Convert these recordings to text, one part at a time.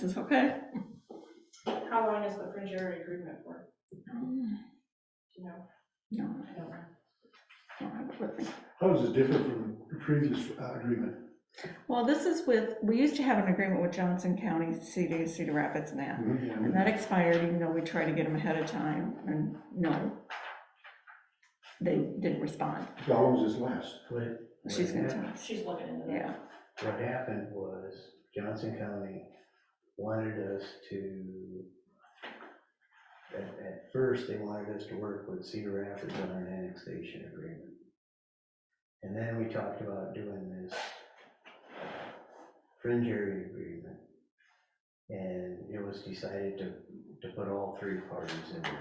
This is okay. How long is the fringe area agreement for, No, do you know? I don't. No, I don't think- How is it different from the previous uh, agreement? Well, this is with, we used to have an agreement with Johnson County, CD, Cedar Rapids and that. And that expired even though we tried to get them ahead of time and no. They didn't respond. How long was this last? What, She's gonna tell us. She's looking into that. Yeah, what happened was Johnson County wanted us to, at, at first, they wanted us to work with Cedar Rapids on an annexation agreement. And then we talked about doing this fringe area agreement. And it was decided to, to put all three parties in there,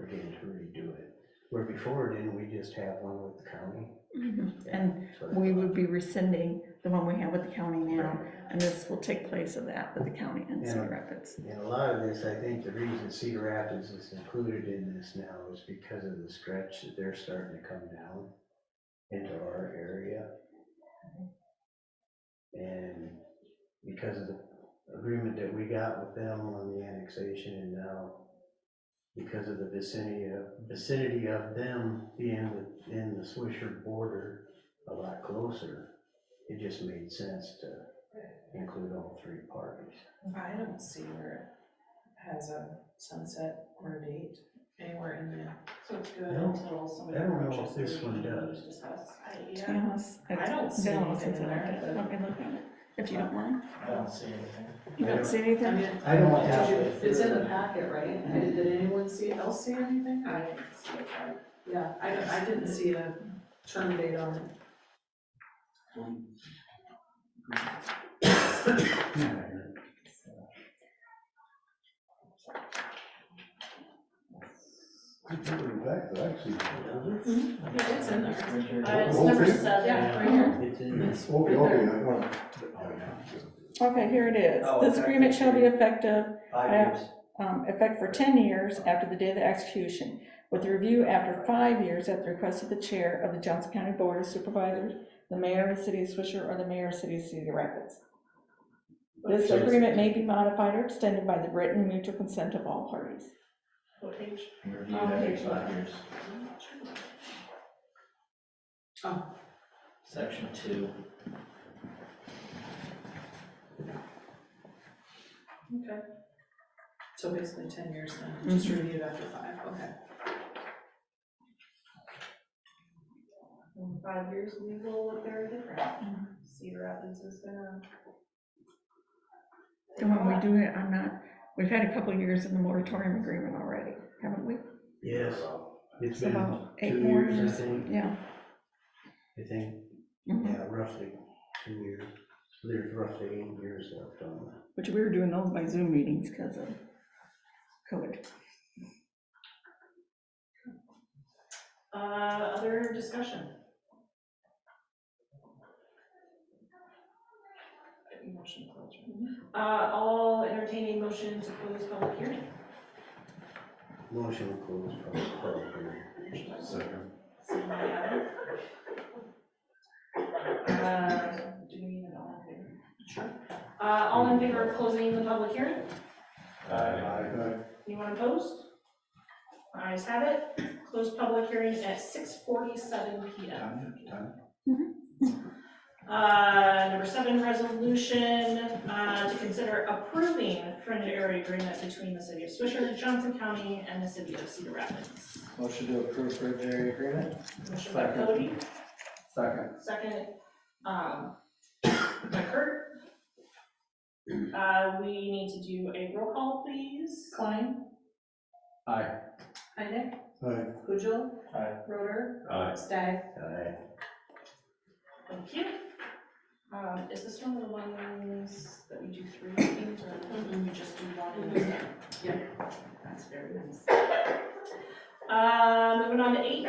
again, to redo it. Where before, didn't we just have one with the county? Mhm. And we would be rescinding the one we have with the county now, Right. and this will take place of that with the county and Cedar Rapids. And a lot of this, I think the reason Cedar Rapids is included in this now is because of the stretch that they're starting to come down into our area. And because of the agreement that we got with them on the annexation and now because of the vicinity of, vicinity of them being within the Swisher border a lot closer, it just made sense to include all three parties. I don't see where it has a sunset or a date anywhere in there. So it's good I don't- until somebody. I don't know approaches what this the one meeting to does. discuss. I- Yeah, Yes, I don't it's see been a while anything since I in there, looked at it. but- Let me look at it, if you don't mind. I don't see anything. You don't see I anything? mean, I don't have it. Mm-hmm. It's in the packet, right? I- Did anyone see, else see anything? I didn't see it, I- Yeah, I, I didn't see a term date on it. Good to bring it back, though, actually. It's in there. Uh, It's whole number thing? seven. Yeah, right here. It's in the It's Okay, right there. okay, I, well, Okay, here it is. Oh, This okay. agreement shall be effective Five years. um, effect for 10 years after the day of the execution, with review after five years at the request of the chair of the Johnson County Board of Supervisors, the mayor of the city of Swisher, or the mayor of the city of Cedar Rapids. This agreement may be modified or extended by the written mutual consent of all parties. What page? Reviewed every five years. Oh. Section two. Okay. So basically ten years then, just reviewed after five, okay. In five years, we will look very Mm-hmm. different. Cedar Rapids is gonna. do it, I'm not, we've had a couple of years in the moratorium agreement already, haven't we? Yes, It's it's been about eight two more years, I years. think, Yeah. I think, Mhm. yeah, roughly two years. There's roughly eight years left on that. Which we were doing those by Zoom meetings because of COVID. Uh, other discussion? Motion closure. Uh, all entertaining motion to close public hearing. Motion to close public public hearing. Seeing none, Adam? Uh, Do we need an all in favor? Sure. Uh, all in favor of closing the public hearing? Anyone opposed? Ayes have it. Closed public hearing at six forty-seven PM. time, time. Uh, Number seven, resolution uh, to consider approving fringe area agreement between the city of Swisher, Johnson County, and the city of Cedar Rapids. Motion to approve for area agreement? Motion by Second. Cody, Second. second um, by Kurt. Uh, We need to do a roll call, please. Klein, Aye. Heineck, Aye. Pujol, Aye. Roder, Aye. Stagg, Aye. Thank you. Um, Is this one of the ones that we do three readings or do we just do one? and then- Yeah. That's very nice. Uh, Moving on to eight,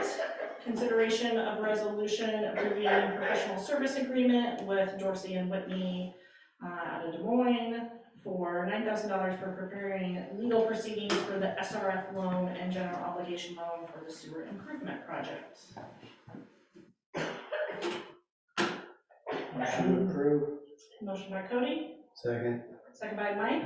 consideration of resolution approving professional service agreement with Dorsey and Whitney uh, out of Des Moines for $9,000 for preparing legal proceedings for the SRF loan and general obligation loan for the sewer improvement project. Motion to approve. Motion by Cody, Second, second by Mike.